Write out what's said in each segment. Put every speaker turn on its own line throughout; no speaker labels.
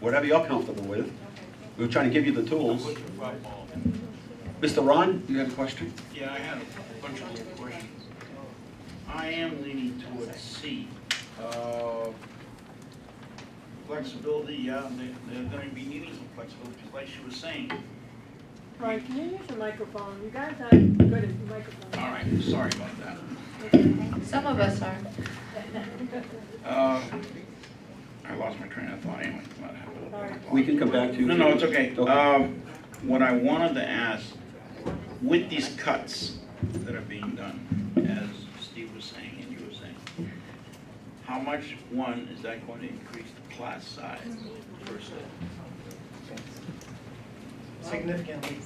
whatever you're comfortable with. We were trying to give you the tools.
What's your football?
Mr. Ron, you have a question?
Yeah, I have a bunch of little questions. I am leaning towards C. Uh, Flexibility, yeah, they- they're going to be needing some flexibility, just like she was saying.
Right, can you use the microphone? You guys aren't good at microphones.
All right, sorry about that.
Some of us are.
Uh, I lost my train of thought anyway. I'm not having a
All right.
We can come back to you.
No, no, it's okay.
Okay.
Um, What I wanted to ask, with these cuts that are being done, as Steve was saying and you were saying, how much, one, is that going to increase the class size versus?
significantly.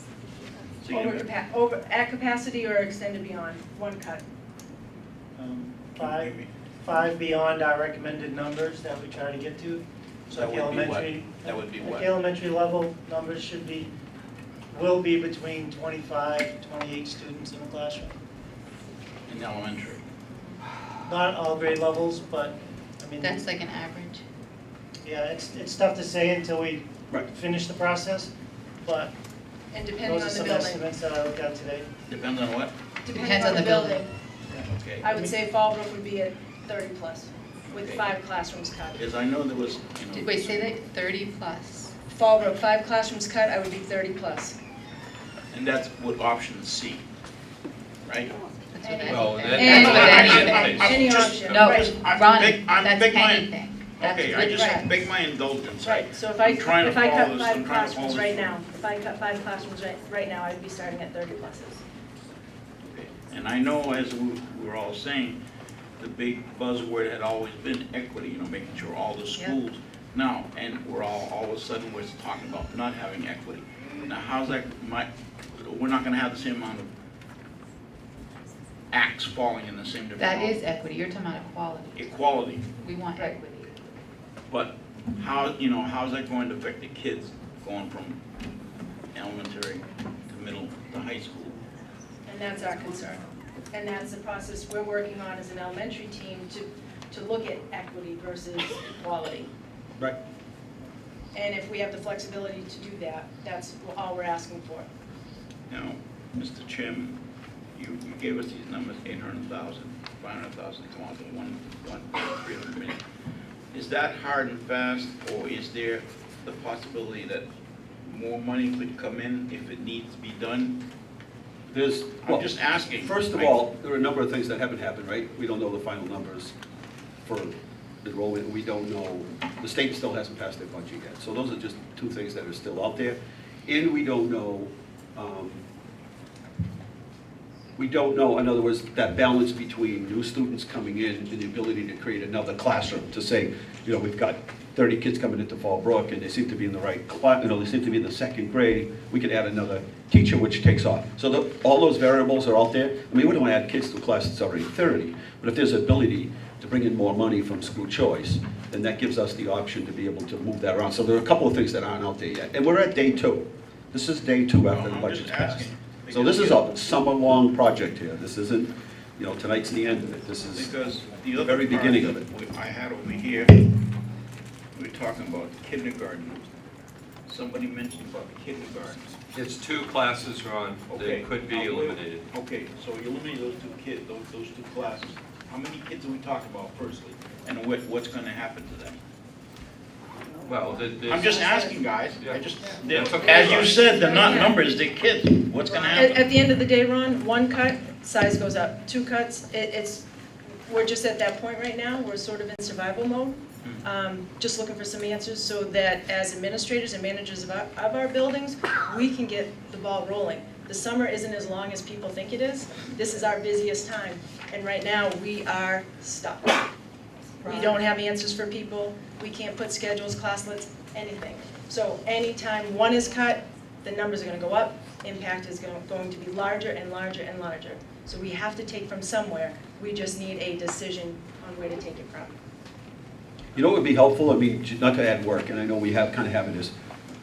Over capa, over, at capacity or extended beyond, one cut.
um, Five, five beyond our recommended numbers that we try to get to.
So that
Like
would be what?
elementary-
That would be
Like
what?
elementary level numbers should be, will be between 25 and 28 students in a classroom.
In elementary?
Not all grade levels, but, I mean,
That's like an average.
yeah, it's, it's tough to say until we
Right.
finish the process, but
And depending
those are
on the
some
building,
estimates that I looked at today.
Depends on what?
depending
Depends
on the building,
Okay.
I would say Fallbrook would be at thirty plus, with
Okay.
five classrooms cut.
Because I know there was, you
Did-
know,
Wait, say that thirty plus.
Fallbrook, five classrooms cut, I would be thirty plus.
and that's with option C, right?
That's what I-
Well, that-
And
that's
with
already in
anything.
place.
Any
Just-
option,
No,
right,
I'm
Ronnie,
big- I'm
that's
big man.
anything. That's
Okay, I
with-
just
right.
beg my indulgence. I-
right, so if I,
I'm trying to
if I
follow
cut
this, I'm
five
trying to follow
classrooms
this.
right now, if I cut five classrooms right, right now, I'd be starting at thirty pluses.
And I know, as we we're all saying, the big buzzword had always been equity, you know, making sure all the schools. Now, and we're all, all of a sudden, we're talking about not having equity. Now, how's that, my, we're not gonna have the same amount of acts falling in the same direction.
That is equity, you're talking about equality.
Equality,
We want
Right.
equity.
but how, you know, how's that going to affect the kids going from elementary to middle to high school?
And that's our concern. And that's the process we're working on as an elementary team to, to look at equity versus equality.
Right.
And if we have the flexibility to do that, that's all we're asking for.
Now, Mr. Chairman, you you gave us these numbers, 800,000, 500,000, come on, to one, one, 300 million. Is that hard and fast, or is there the possibility that more money could come in if it needs to be done?
There's,
I'm
well,
just asking.
first of
I-
all, there are a number of things that haven't happened, right? We don't know the final numbers for enrollment, we don't know, the state still hasn't passed their budget yet. So those are just two things that are still out there. And we don't know, um, we don't know, in other words, that balance between new students coming in and the ability to create another classroom, to say, you know, we've got 30 kids coming into Fallbrook, and they seem to be in the right class, you know, they seem to be in the second grade, we could add another teacher, which takes off. So the- all those variables are out there. I mean, we don't want to add kids to a class that's already 30, but if there's ability to bring in more money from school choice, then that gives us the option to be able to move that around. So there are a couple of things that aren't out there yet. And we're at day two. This is day two after the
No, I'm just
budget's passed.
asking,
So this is a summer-long project here. This isn't, you know, tonight's the end of it. This is,
Because the other.
Very
part
beginning of it.
we- I had over here, we were talking about kindergarten. Somebody mentioned about kindergarten.
It's two classes, Ron,
Okay.
that could be
Now, wait-
eliminated.
Okay, so you eliminate those two kids, those, those two classes. How many kids are we talking about firstly? And what, what's gonna happen to them?
Well, th-
I'm
there's,
just asking, guys. I just, they're-
That's okay,
as you
Ryan.
said, they're not
Yeah.
numbers, they're kids. What's gonna
At,
happen?
at the end of the day, Ron, one cut, size goes up. Two cuts, it, it's, we're just at that point right now, we're sort of in survival mode. Um, just looking for some answers so that as administrators and managers of our, of our buildings, we can get the ball rolling. The summer isn't as long as people think it is. This is our busiest time, and right now, we are stuck. We don't have answers for people, we can't put schedules, class lists, anything. So anytime one is cut, the numbers are gonna go up, impact is gonna- going to be larger and larger and larger. So we have to take from somewhere, we just need a decision on where to take it from.
you know what would be helpful? I mean, j- not to add work, and I know we have, kind of have it is,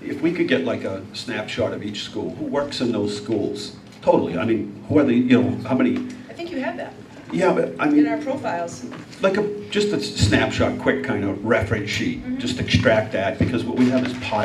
if we could get like a snapshot of each school, who works in those schools? Totally, I mean, who are the, you know, how many,
I think you have that.
Yeah, but I
in
mean,
our profiles.
like a, just a snapshot, quick kind of reference sheet, just extract that, because what we have is piles